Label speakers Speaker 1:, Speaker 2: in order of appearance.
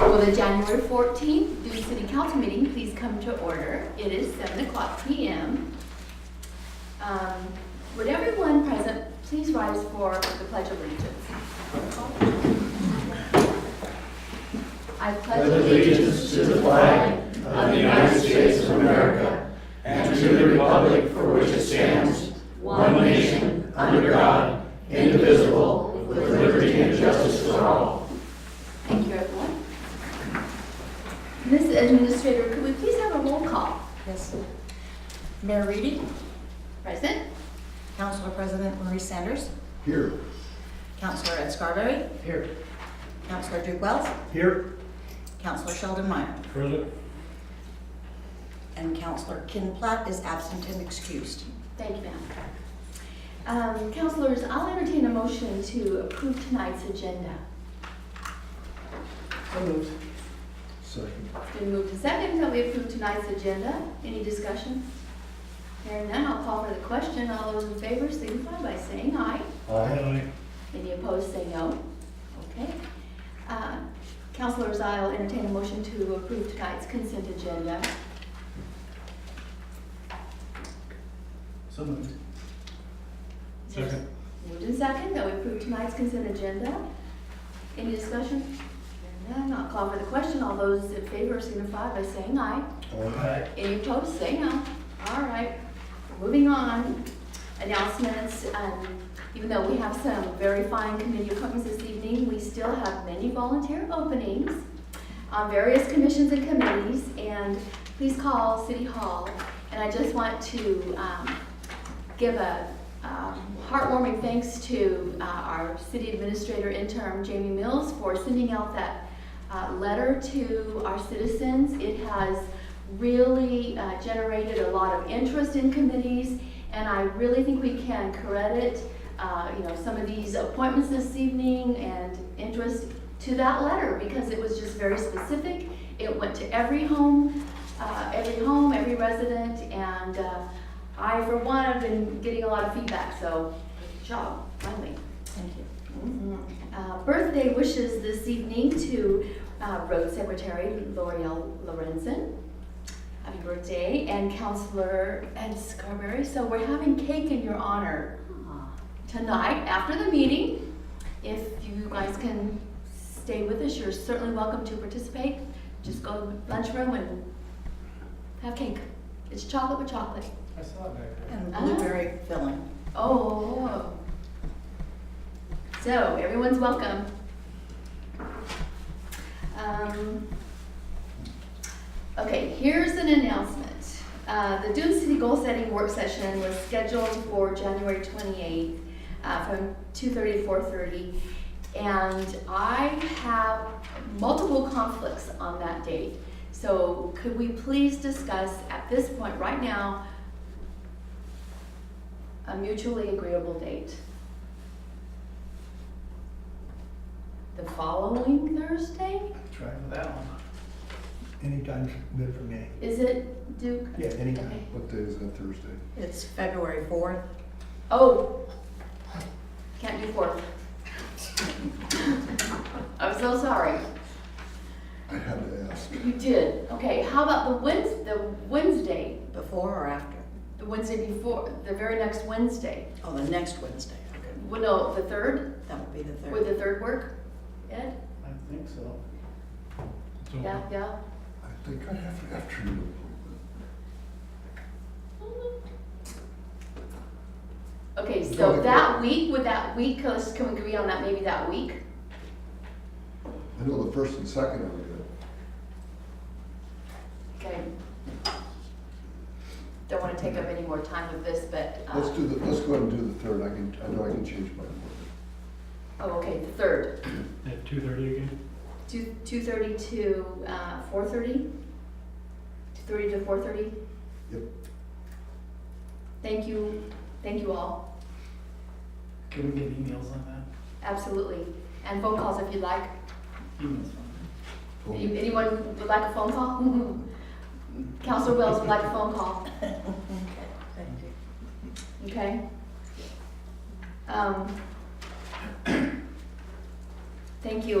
Speaker 1: Will the January 14th Dune City Council meeting please come to order? It is 7 o'clock PM. Um, Would everyone present please rise for the Pledge of Allegiance? I pledge allegiance to the flag of the United States of America
Speaker 2: and to the republic for which it stands, one nation, under God, indivisible, with liberty and justice for all.
Speaker 1: Thank you, everyone. Ms. Administrator, could we please have a roll call?
Speaker 3: Yes. Mayor Reedy,
Speaker 1: Present?
Speaker 3: Councilor President Marie Sanders,
Speaker 2: Here.
Speaker 3: Councilor Ed Scarberry,
Speaker 2: Here.
Speaker 3: Councilor Duke Wells,
Speaker 2: Here.
Speaker 3: Councilor Sheldon Meyer,
Speaker 2: Present.
Speaker 3: and Councilor Kin Platt is absent and excused.
Speaker 1: Thank you, ma'am. Um, Counselors, I'll entertain a motion to approve tonight's agenda.
Speaker 2: Second.
Speaker 1: It's been moved to second that we approve tonight's agenda. Any discussion? Hearing none, I'll call for the question. All those in favor signify by saying aye.
Speaker 2: Aye.
Speaker 1: Any opposed, say no. Okay. Uh, Counselors, I'll entertain a motion to approve tonight's consent agenda.
Speaker 2: So moved. Second.
Speaker 1: Moved in second that we approve tonight's consent agenda. Any discussion? Hearing none, I'll call for the question. All those in favor signify by saying aye.
Speaker 2: Aye.
Speaker 1: Any opposed, say no. All right, moving on. Announcements, um, even though we have some very fine committee appointments this evening, we still have many volunteer openings on various commissions and committees, and please call City Hall. And I just want to um, give a um, heartwarming thanks to uh, our city administrator interim, Jamie Mills, for sending out that uh, letter to our citizens. It has really uh, generated a lot of interest in committees, and I really think we can credit, uh, you know, some of these appointments this evening and interest to that letter because it was just very specific. It went to every home, uh, every home, every resident, and uh, I, for one, have been getting a lot of feedback, so good job, finally.
Speaker 3: Thank you.
Speaker 1: Mhm. Uh, Birthday wishes this evening to uh, Road Secretary L'Oreal Lorenzen. Happy birthday, and Counselor Ed Scarberry. So we're having cake in your honor tonight after the meeting. If you guys can stay with us, you're certainly welcome to participate. Just go to the lunchroom and have cake. It's chocolate with chocolate.
Speaker 2: I saw it back there.
Speaker 3: And blueberry filling.
Speaker 1: Oh. So, everyone's welcome. Um, Okay, here's an announcement. Uh, The Dune City Goal Setting Work Session was scheduled for January 28th uh, from 2:30 to 4:30. And I have multiple conflicts on that date. So could we please discuss at this point, right now, a mutually agreeable date. The following Thursday?
Speaker 4: Try for that one. Anytime's good for me.
Speaker 1: Is it Duke?
Speaker 4: Yeah, anytime.
Speaker 2: What day is that Thursday?
Speaker 3: It's February 4th.
Speaker 1: Oh, can't do fourth. I'm so sorry.
Speaker 2: I had to ask.
Speaker 1: You did. Okay, how about the Wednesday, the Wednesday,
Speaker 3: Before or after?
Speaker 1: the Wednesday before, the very next Wednesday?
Speaker 3: Oh, the next Wednesday. Okay.
Speaker 1: Well, no, the third,
Speaker 3: That would be the
Speaker 1: would
Speaker 3: 3rd.
Speaker 1: the third work? Ed?
Speaker 4: I think so.
Speaker 1: Yeah, yeah.
Speaker 2: I think I have an afternoon appointment.
Speaker 1: Okay,
Speaker 2: No,
Speaker 1: so
Speaker 2: it-
Speaker 1: that week, would that week, us- can we agree on that, maybe that week?
Speaker 2: I know the first and second are good.
Speaker 1: Okay. Don't want to take up any more time with this, but, uh,
Speaker 2: Let's do the, let's go ahead and do the third. I can, I know I can change my appointment.
Speaker 1: oh, okay, the third,
Speaker 5: At two thirty again?
Speaker 1: two, two thirty to, uh, four thirty? Two thirty to four thirty?
Speaker 2: Yep.
Speaker 1: Thank you, thank you all,
Speaker 4: Can we get emails on that?
Speaker 1: absolutely, and phone calls if you'd like.
Speaker 4: Emails on
Speaker 1: Any- Anyone would like a phone call? Counselor Wells would like a phone call.
Speaker 3: Thank you.
Speaker 1: Okay. Um, Thank you